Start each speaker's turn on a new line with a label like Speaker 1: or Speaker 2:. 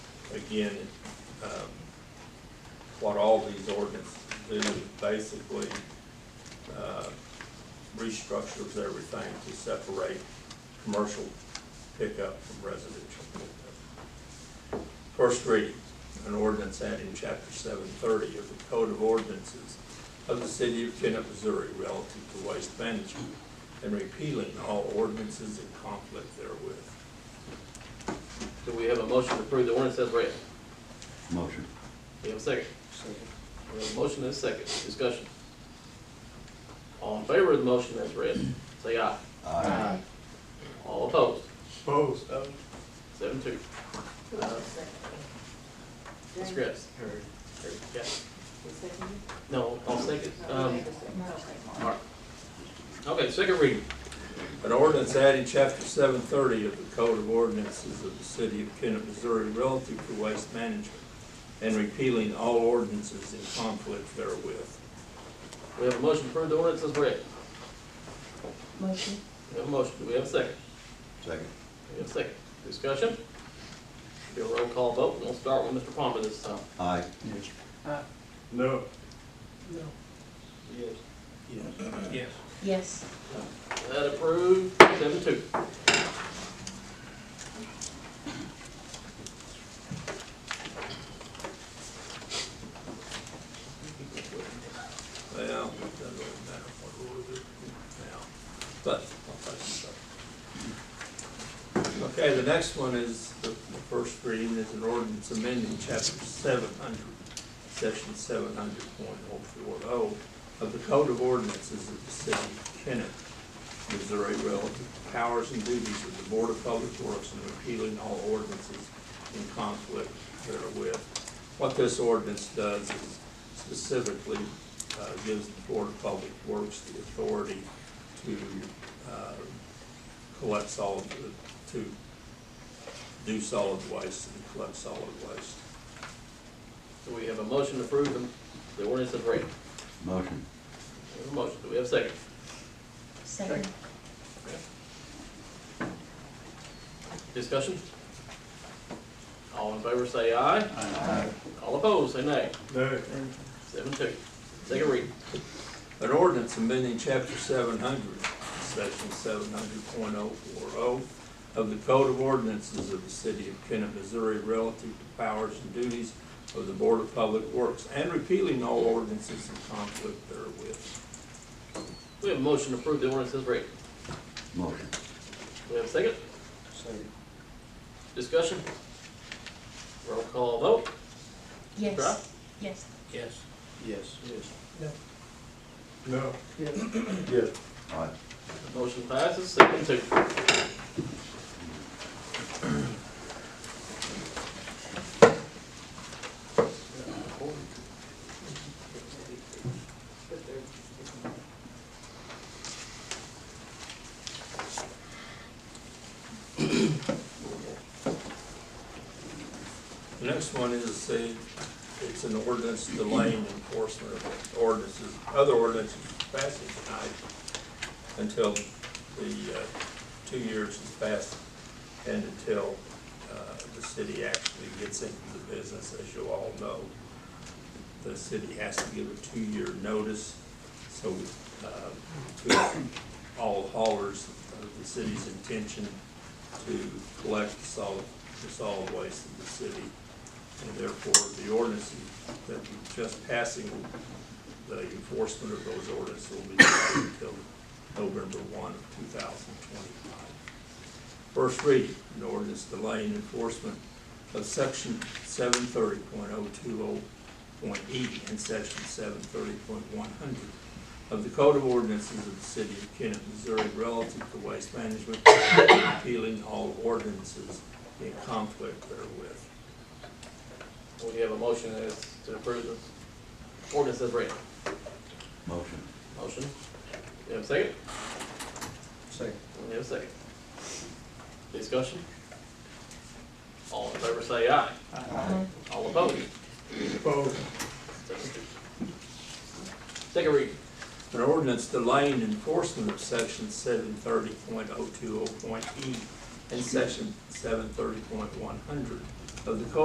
Speaker 1: in, um, what all these ordinances do is basically, uh, restructures everything to separate commercial pickup from residential pickup. First reading, an ordinance adding chapter seven thirty of the Code of Ordinances of the City of Kennett, Missouri relative to waste management and repealing all ordinances in conflict therewith.
Speaker 2: Do we have a motion to approve the ordinance as read?
Speaker 3: Motion.
Speaker 2: We have a second? We have a motion and a second, discussion. All in favor of the motion as read, say aye.
Speaker 3: Aye.
Speaker 2: All opposed,
Speaker 1: Opposed?
Speaker 2: seven two. Ms. Griffin?
Speaker 4: Heard.
Speaker 2: There we go. No, all second, um, all right. Okay, second reading,
Speaker 1: An ordinance adding chapter seven thirty of the Code of Ordinances of the City of Kennet, Missouri relative to waste management and repealing all ordinances in conflict therewith.
Speaker 2: we have a motion to approve the ordinance as read.
Speaker 4: Motion.
Speaker 2: We have a motion, do we have a second?
Speaker 3: Second.
Speaker 2: We have a second, discussion. Do a roll call vote, we'll start with Mr. Palmer this time.
Speaker 3: Aye.
Speaker 1: No.
Speaker 4: No.
Speaker 2: Yes.
Speaker 1: Yes.
Speaker 4: Yes.
Speaker 2: That approved, seven two.
Speaker 1: Well, it doesn't really matter what order they're in now, but I'll tell you something. Okay, the next one is, the the first reading is an ordinance amending chapter seven hundred, section seven hundred point oh four oh of the Code of Ordinances of the City of Kennet, Missouri relative to powers and duties of the Board of Public Works and repealing all ordinances in conflict therewith. What this ordinance does is specifically uh, gives the Board of Public Works the authority to uh, collect solid, to do solid waste and collect solid waste.
Speaker 2: So we have a motion to approve the ordinance as read.
Speaker 3: Motion.
Speaker 2: We have a motion, do we have a second?
Speaker 4: Second.
Speaker 2: Discussion? All in favor say aye.
Speaker 3: Aye.
Speaker 2: All opposed, say nay. Seven two. Second reading.
Speaker 1: An ordinance amending chapter seven hundred, section seven hundred point oh four oh of the Code of Ordinances of the City of Kennet, Missouri relative to powers and duties of the Board of Public Works and repealing all ordinances in conflict therewith.
Speaker 2: We have a motion to approve the ordinance as read.
Speaker 3: Motion.
Speaker 2: We have a second? Discussion? Roll call vote. Right.
Speaker 4: Yes. Yes.
Speaker 2: Yes.
Speaker 5: Yes.
Speaker 2: Yes.
Speaker 5: No.
Speaker 3: Aye.
Speaker 2: Motion passes, seven two.
Speaker 1: The next one is a, it's an ordinance delaying enforcement of ordinances, other ordinances passing tonight until the, uh, two years is passed and until, uh, the city actually gets into the business, as you all know. The city has to give a two-year notice, so, uh, to all haulers of the city's intention to collect solid, the solid waste of the city. And therefore, the ordinance that we're just passing, the enforcement of those ordinances will be delayed until November one of two thousand twenty-five. First reading, an ordinance delaying enforcement of section seven thirty point oh two oh point E and section seven thirty point one hundred of the Code of Ordinances of the City of Kennet, Missouri relative to waste management, repealing all ordinances in conflict therewith.
Speaker 2: We have a motion as to approve the ordinance as read.
Speaker 3: Motion.
Speaker 2: Motion. We have a second?
Speaker 5: Second.
Speaker 2: We have a second. Discussion? All in favor say aye.
Speaker 4: Aye.
Speaker 2: All opposed?
Speaker 5: Opposed.
Speaker 2: Second reading.
Speaker 1: An ordinance delaying enforcement of section seven thirty point oh two oh point E and section seven thirty point one hundred of the Code